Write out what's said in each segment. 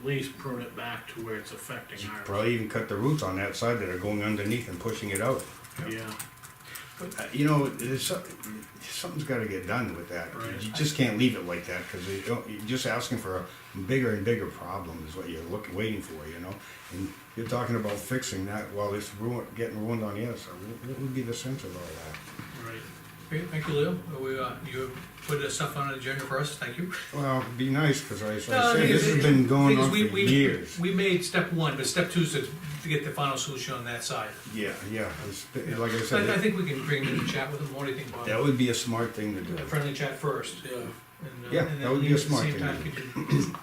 at least prune it back to where it's affecting ours. Probably even cut the roots on that side that are going underneath and pushing it out. Yeah, But, uh, you know, there's some, something's got to get done with that. Right. You just can't leave it like that because you don't- you're just asking for a bigger and bigger problem is what you're looking, waiting for, you know? And you're talking about fixing that while it's ruin, getting ruined on the other side. What- What would be the sense of all that? right. Okay, thank you, Leo. We, uh, you put this stuff on the agenda for us, thank you. Well, it'd be nice because I, as No, I the say, thing this is- has been going thing is, on for we- we- years. We made step one, but step two is to, to get the final solution on that side. Yeah, yeah. it's been- Like I So I, I said, think we can bring them in and chat with them, what do you think, Bob? that would be a smart thing to do. A friendly chat first. Yeah. and, uh, Yeah, and that then would be leave a at the smart same thing time. to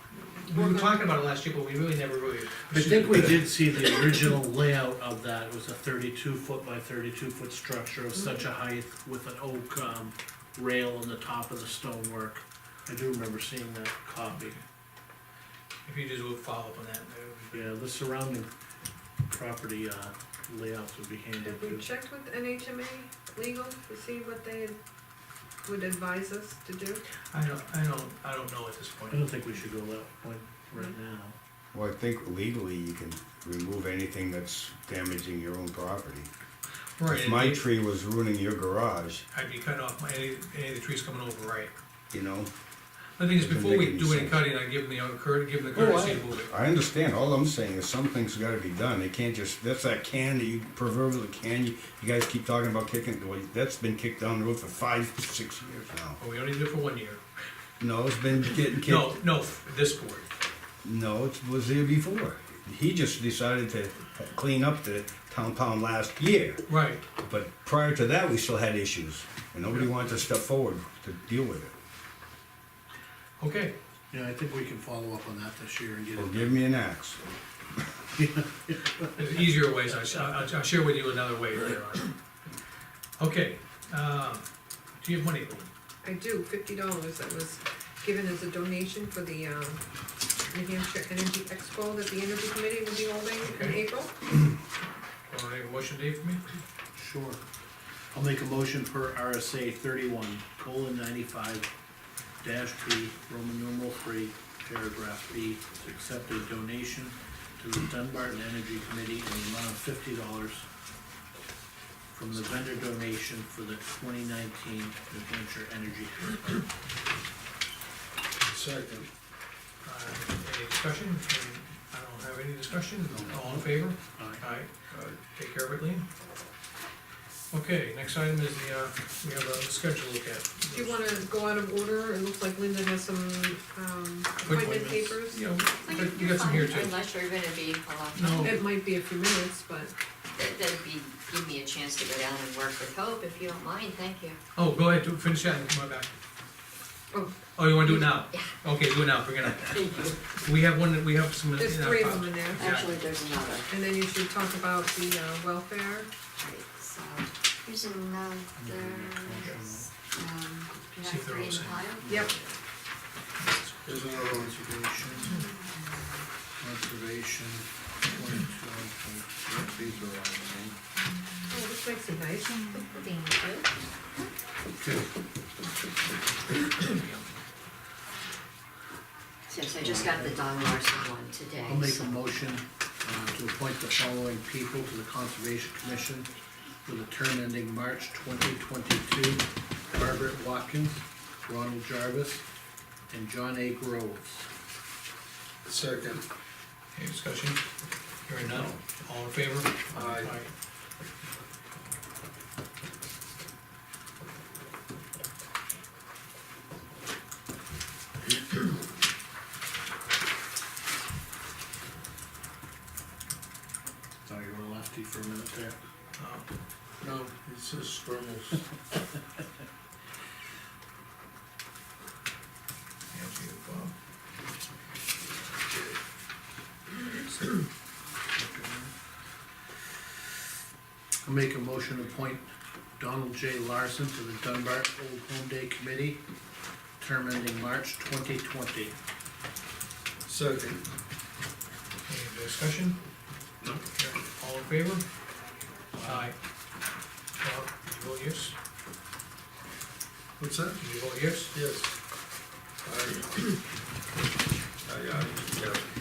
We were talking about it last year, but we really never really. I think we did see the original layout of that, it was a thirty-two foot by thirty-two foot structure of such a height with an oak, um, rail on the top of the stonework. I do remember seeing that copy, If you just would follow up on that, that would be- yeah, the surrounding property, uh, layouts would be handled Have too. we checked with NHMA legal to see what they would advise us to do? I don't, I don't, I don't know at this point. I don't think we should go that point right now. Well, I think legally you can remove anything that's damaging your own property. Right, If my and tree was ruining your garage, I'd be cutting off my, any, any of the trees coming over, right? you know, The thing is, Doesn't before we make any do any sense. cutting, I give them the, cur- give them the Oh, courtesy I- to move it. I understand. All I'm saying is something's got to be done. They can't just that's that can that you proverbial can you, you guys keep talking about kicking. Well, that's been kicked down the road for five, six years now. Well, Oh, we only did it for one year. No, it's been getting kicked. No, no, this board. No, it was there before. He just decided to clean up the town pound last year. Right. But prior to that, we still had issues, and nobody wanted to step forward to deal with it. Okay. Yeah, I think we can follow up on that this year and get Well, it. give me an axe. There's easier ways. I sh- I'll, I'll share with you another way later on. Okay. Um, do you have money? I do, fifty dollars that was given as a donation for the, um, New Hampshire Energy Expo that the Energy Committee will be holding in Okay. April. Want to make a motion, Dave, for me? Sure. I'll make a motion per RSA thirty-one, colon ninety-five, dash B, Roman numeral three, paragraph B, to accept a donation to the Dunbarton Energy Committee in the amount of fifty dollars from the vendor donation for the twenty nineteen New Hampshire Energy. Second. Uh, any discussion? I don't have any discussion. All in favor? Aye. Aye. Take care of it, Lean. Okay, next item is the, uh, we have a schedule to look at. Do you wanna go out of order? It looks like Linda has some, um, appointment appointments. papers. You know, we got some here too. Unless you're gonna be for a long No. time, It might be a few minutes, but That- that'd be, give me a chance to go down and work with Hope, if you don't mind, thank you. Oh, go ahead, do- finish that and come right back. Oh. Oh, you wanna do it now? Yeah. Okay, do it now, bring it up. Thank you. We have one, that we have some. in there's our three of files. them in there. Actually, there's another, And then you should talk about the, uh, welfare. right, so, here's another, um, do you See if have they're all three in the same. pile? Yep, There's another conservation, conservation, These are all mine. oh, this makes it nice. Thank you. Yes, I just got the Don Larson one today. I'll make so- a motion uh, to appoint the following people to the Conservation Commission with a term ending March twenty twenty-two. Margaret Watkins, Ronald Jarvis, and John A. Groves. Second. Any discussion? Hearing none, all in favor? Aye. Sorry, you were lefty for a minute there. Uh, No, it says scribbles. thank you, I'll make a motion to appoint Donald J. Larson to the Dunbar Old Home Day Committee, term ending March twenty twenty. Second. Bob. Any discussion? No. All in favor? Aye. Bob, did you vote yes? What's that? Did you vote yes? Yes. Aye. Aye, aye, yeah.